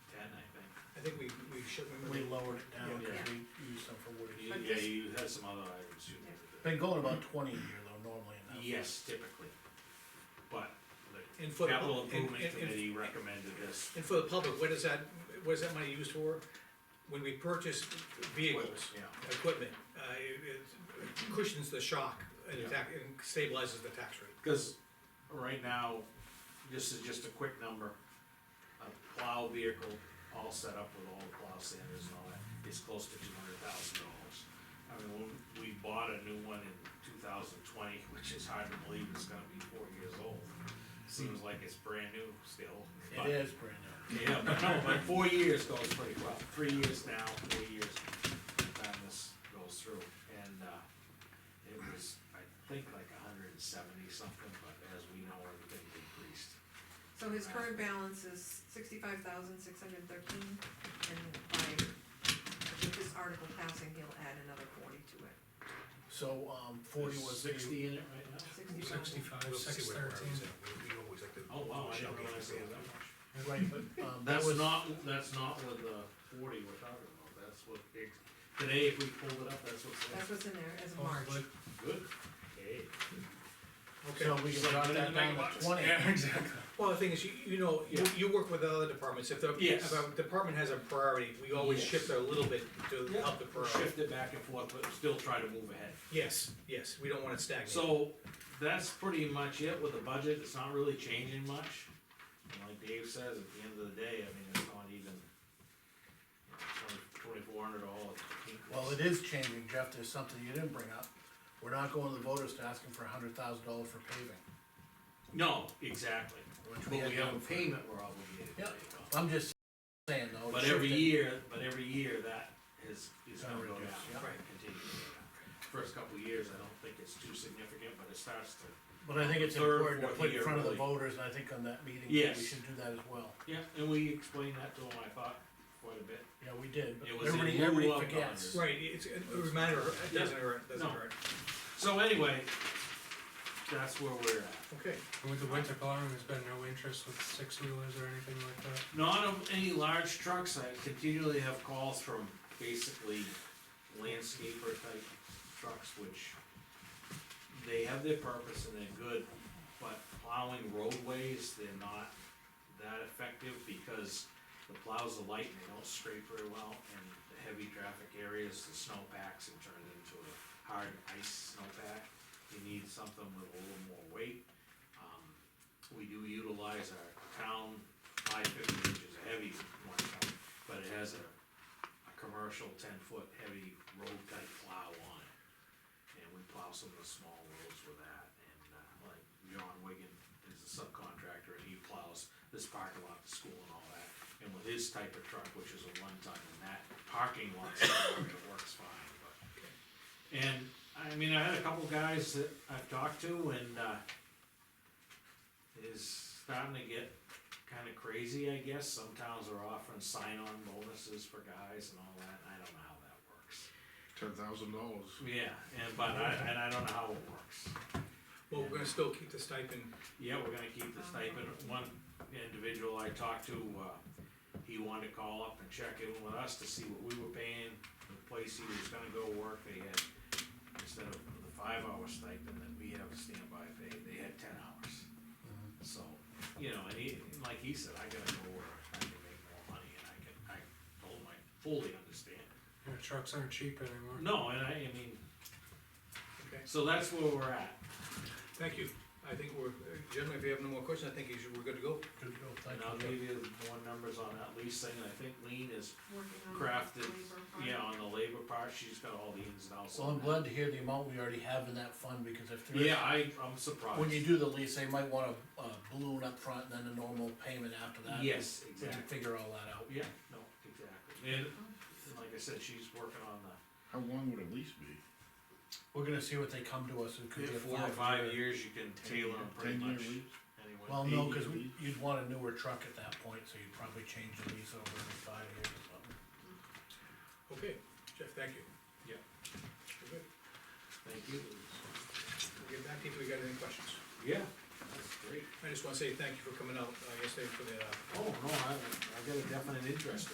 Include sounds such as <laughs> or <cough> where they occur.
shipment. We lowered it down, Yeah. cause we used some for wood. But Yeah, this- you had some other items you needed. Been going about twenty a year though, normally in that. Yes, typically. But the And for the capital pub- and- improvement and- and- committee recommended this. And for the public, what is that, what is that money used for? When we purchase vehicles, Equipment, equipment, uh, it- it cushions the shock and Yeah. tax, and stabilizes the tax rate. Cause right now, this is just a quick number. A plow vehicle, all set up with all the plow sanders and all that, is close to two hundred thousand dollars. I mean, when we bought a new one in two thousand twenty, <laughs> which is hard to believe it's gonna be four years old. Seems like it's brand new still. but- It is brand new. Yeah, but no, but four years goes pretty well, three years now, four years, by the time this goes through, and, uh, it was, I think like a hundred and seventy something, but as we know, everything decreased. So his current balance is sixty-five thousand, six hundred thirteen, and by, with this article passing, he'll add another forty to it. So, um, forty There's was the, Sixty in it right now? Sixty. Sixty-five, We'll see six where we're at. thirteen. We- We always like to. Oh, wow, I check didn't if realize we it was have- that much. <laughs> right, but, um, that That's was, not, that's not with the forty we're talking about, that's what, it- today, if we pulled it up, that's what's That's left. what's in there as Oh, March. but- Good, hey. so we can drop that down to twenty. Yeah, exactly. Well, the thing is, you, you know, you, Yeah. you work with other departments, if the, Yes. if a department has a priority, we always Yes. shift a little bit to Yeah, help the we'll priority. Shift it back and forth, but still try to move ahead. Yes, yes, we don't wanna stagnate. So, that's pretty much it with the budget, it's not really changing much. And like Dave says, at the end of the day, I mean, it's not even twenty-four hundred dollars. Well, it is changing, Jeff, there's something you didn't bring up. We're not going to the voters to ask them for a hundred thousand dollars for paving. No, exactly, Which but we we had have done a for- payment we're obligated to Yep. make on. I'm just saying though. it's But every shifting. year, but every year that is, is Gonna gonna go down, reduce, yeah. Right. continue to go down. First couple of years, I don't think it's too significant, but it starts to But I think it's Third, important to fourth put in year, front of the really. voters, and I think on that meeting, we Yes. should do that as well. Yeah, and we explained that to him, I thought, quite a bit. Yeah, we did, but It was in everybody, lieu everybody of forgets. Right, it's a reminder, it doesn't hurt, doesn't No. hurt. So anyway, that's where we're at. Okay, With the winter plowing, there's been no interest with six wheelers or anything like that? Not of any large trucks, I continually have calls from basically landscaper type trucks, which they have their purpose and they're good, but plowing roadways, they're not that effective because the plows are light and they don't scrape very well, and the heavy traffic areas, the snow packs, it turns into a hard ice snow pack. You need something with a little more weight. Um, we do utilize our town five fifty, which is a heavy one, but it has a, a commercial ten foot heavy road type plow on it. And we plow some of the small roads with that, and uh, like John Wigan is a subcontractor, and he plows this parking lot, the school and all that. And with his type of truck, which is a one ton, and that parking lot, it works fine, but. And, I mean, I had a couple guys that I've talked to and, uh, is starting to get kinda crazy, I guess. Some towns are offering sign-on bonuses for guys and all that, and I don't know how that works. ten thousand dollars. Yeah, and, but I, and I don't know how it works. well, we're gonna still keep the stipend, Yeah, we're gonna keep the stipend, one individual I talked to, uh, he wanted to call up and check in with us to see what we were paying, the place he was gonna go work, they had, instead of the five hour stipend that we have a standby pay, they had ten hours. So, you know, and he, like he said, I gotta go where I can make more money, and I can, I told him I fully understand. You know, trucks aren't cheap anymore. No, and I, I mean, okay? so that's where we're at, Thank you, I think we're, gentlemen, if you have no more questions, I think you should- we're good to go. Good deal, thank and I'll you. give you more numbers on that lease thing, I think Lean is Working on crafted, labor part. yeah, on the labor part, she's got all the ins and outs. Well, I'm on that. glad to hear the amount we already have in that fund, because if there Yeah, is, I, I'm surprised. when you do the lease, they might want a, a balloon up front and then a normal payment after that. Yes, We can exactly, figure all that out. yeah, no, exactly, and, and like I said, she's working on the. How long would a lease be? We're gonna see what they come to us, it could be a Four or five years, you can tailor them pretty Ten-year much lease? anyway. Well, no, cause Eight-year lease. you'd want a newer truck at that point, so you'd probably change the lease over in five years or something. Okay, Jeff, thank you. Yeah. We're good. Thank you. We'll get back to you if we got any questions. Yeah, that's great. I just wanna say thank you for coming out uh, yesterday for the, uh, Oh, no, I, I got a definite interest